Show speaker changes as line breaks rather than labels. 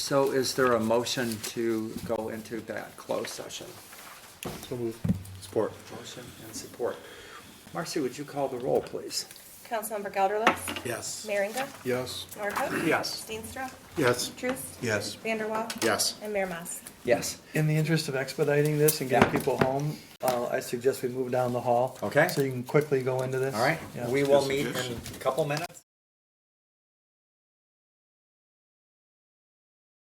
So is there a motion to go into that closed session?
Support.
Motion and support. Marcy, would you call the roll, please?
Councilmember Gelderlos.
Yes.
Merringa.
Yes.
Norhuck.
Yes.
Steenstra.
Yes.
Truce.
Yes.
Vanderwaal.
Yes.
And Mayor Mas.
Yes.
In the interest of expediting this and getting
Yeah.
people home, uh, I suggest we move down the hall.
Okay.
So you can quickly go into this.
All right,
Yeah.
we will meet in a couple minutes.